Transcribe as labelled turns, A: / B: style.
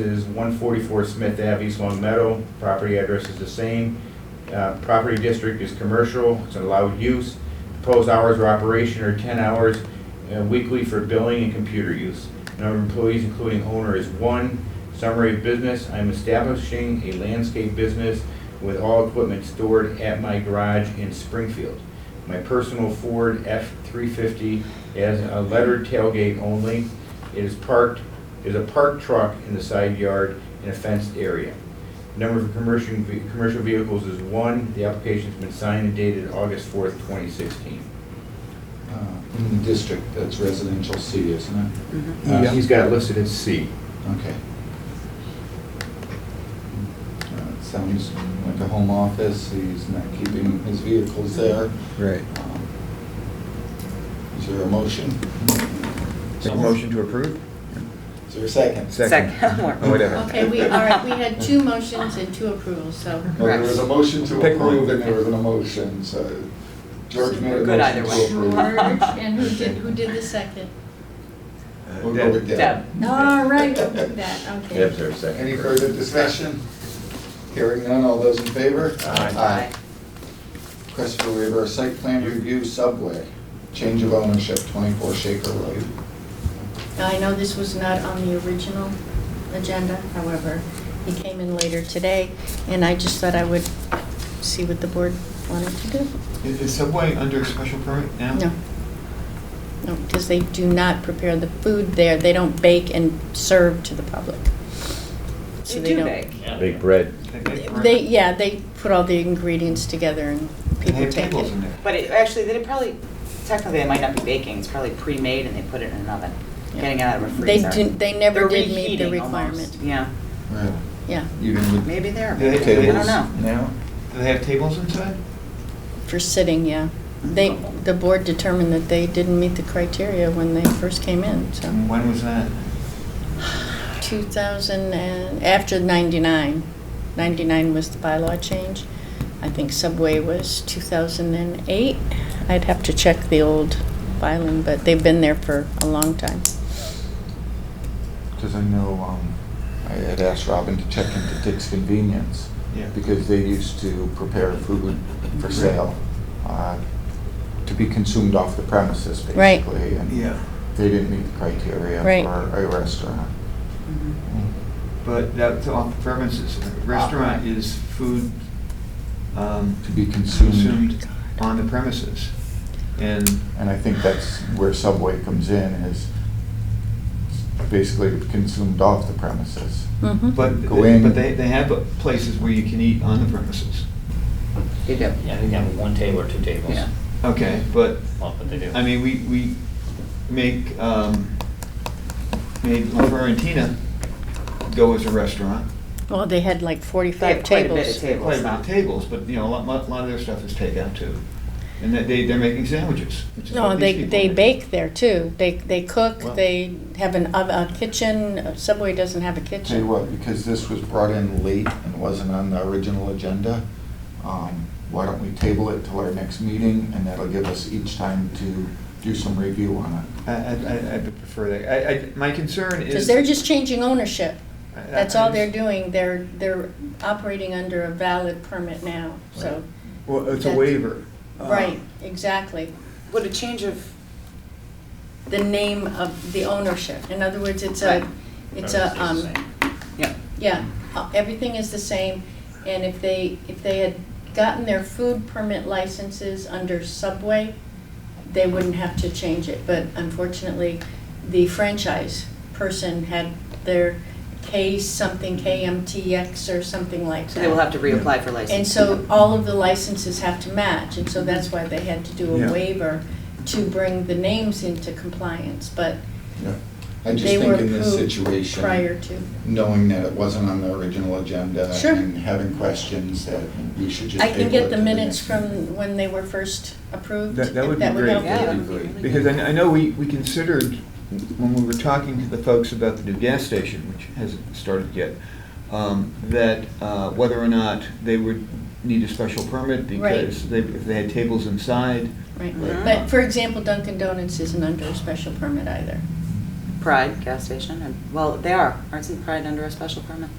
A: is 144 Smith Ave, East Long Meadow. Property address is the same. Uh, Property district is commercial, it's allowed use. Proposed hours of operation are 10 hours uh, weekly for billing and computer use. Number of employees, including owner, is one. Summary of business, I'm establishing a landscape business with all equipment stored at my garage in Springfield. My personal Ford F-350 has a lettered tailgate only. It is parked, is a parked truck in the side yard in a fenced area. Number of commercial, ve- commercial vehicles is one. The application's been signed and dated August 4th, 2016.
B: uh, in the district that's residential C, isn't it?
A: Uh,
B: Yeah.
A: He's got it listed as C.
B: Okay. Uh, Sounds like a home office, he's not keeping his vehicles there.
C: Right.
B: Um, Is there a motion?
C: Take a motion to approve?
B: Is there a second?
D: Second. More.
C: Or whatever.
E: Okay, we, all right, we had two motions and two approvals, so.
B: Well, there was a motion to
C: Pick one.
B: approve and there was an emotion, so George made a
D: We're good
B: motion
D: either
B: to
D: way.
B: approve.
E: George, and who did, who did the second?
B: We'll go with
D: Deb.
B: Deb.
E: All right, we'll do that,
A: Yep,
E: okay.
A: there's a second.
B: Any further discussion? Hearing none, all those in favor?
A: Aye.
B: Request for waiver of site plan review subway, change of ownership, 24 Shaker Road.
E: Now, I know this was not on the original agenda, however, he came in later today, and I just thought I would see what the board wanted to do.
F: Is is Subway under special permit now?
E: No. No, because they do not prepare the food there, they don't bake and serve to the public. So
D: You
E: they
D: do
E: don't-
D: bake.
A: Big bread.
F: They- they-
E: They, yeah, they put all the ingredients together and
F: They
E: people
F: have
E: take
F: tables in
E: it.
F: there.
D: But it, actually, they probably, technically, it might not be baking, it's probably pre-made and they put it in an oven,
E: Yeah.
D: getting it out of a
E: They
D: freezer.
E: didn't, they never
D: They're
E: did meet the
D: reheating almost,
E: requirement.
D: Yeah,
B: Right.
E: Yeah,
B: Even with
D: maybe they're,
F: Yeah, they-
D: baking, I
B: tables
D: don't know.
B: now?
F: Do they have tables inside?
E: for sitting, yeah. They, the board determined that they didn't meet the criteria when they first came in, so.
F: And When was that?
E: 2000 and, after 99, 99 was the bylaw change. I think Subway was 2008. I'd have to check the old filing, but they've been there for a long time.
B: Because I know, um, I had asked Robin to check into Dick's Convenience,
F: Yeah.
B: because they used to prepare food for sale, uh, to be consumed off the premises,
E: Right.
B: basically. and
F: Yeah,
B: They didn't meet the criteria
E: Right.
B: for a restaurant.
D: Mm-hmm.
F: but that's off premises. Restaurant is food um,
B: To be consumed.
F: consumed on the premises. And,
B: And I think that's where Subway comes in, is basically consumed off the premises.
D: Mm-hmm.
E: Mhm.
F: but,
B: Go in.
F: but they, they have places where you can eat on the premises.
D: You do.
G: Yeah, I think they have one table or two tables.
D: Yeah.
F: Okay, but
G: Well, but they do.
F: I mean, we, we make, um, made La Florentina go as a restaurant.
E: Well, they had like
D: They
E: 45
D: have quite a bit of
E: tables.
D: tables.
F: Quite a bit of tables, but, you know, a lot, lot lot of their stuff is takeout too. And that they, they're making sandwiches, which is
E: No,
F: what these
E: they,
F: people
E: they
F: make.
E: bake there too. They, they
F: Wow.
E: cook, they have an, ov- a kitchen. Subway doesn't have a
B: Tell you
E: kitchen.
B: what, because this was brought in late and wasn't on the original agenda, um, why don't we table it till our next meeting, and that'll give us each time to do some review on it.
F: I, I, I- I prefer that. I, I, my concern is.
E: Because they're just changing ownership.
F: I- I-
E: That's all they're
F: I-
E: doing. They're, they're operating under a valid permit now, so.
F: Well, it's a
E: That's-
F: waiver. Uh,
E: Right, exactly.
D: Would a change of,
E: The name of the ownership. In other words, it's
D: Right.
E: a, it's
G: Everything stays
E: a,
G: the
E: um,
G: same.
D: yeah,
E: Yeah, uh, everything is the same, and if they, if they had gotten their food permit licenses under Subway, they wouldn't have to change it, but unfortunately, the franchise person had their K something, KMTX or something like that.
D: so they will have to reapply for license.
E: And so all of the licenses have to match, and so that's why they had to do
F: Yeah.
E: a waiver to bring the names into compliance, but
B: I just
E: they were
B: think in this
E: approved
B: situation.
E: prior to.
B: Knowing that it wasn't on the original agenda.
E: Sure.
B: And having questions that we should just.
E: I can
B: table it
E: get the
B: till
E: minutes
B: next
E: from when they were first approved.
F: That- that
E: if
F: would be great.
E: help
D: Yeah,
E: you.
D: that
B: meeting.
D: would be really
F: Because I,
D: good.
F: I know we, we considered, when we were talking to the folks about the new gas station, which hasn't started yet, um, that uh, whether or not they would need a special permit because they, if they had tables inside.
E: Right,
D: Mhm.
E: but for example, Dunkin' Donuts isn't under a special permit either.
D: Pride gas station, and, well, they are, aren't Pride under a special permit?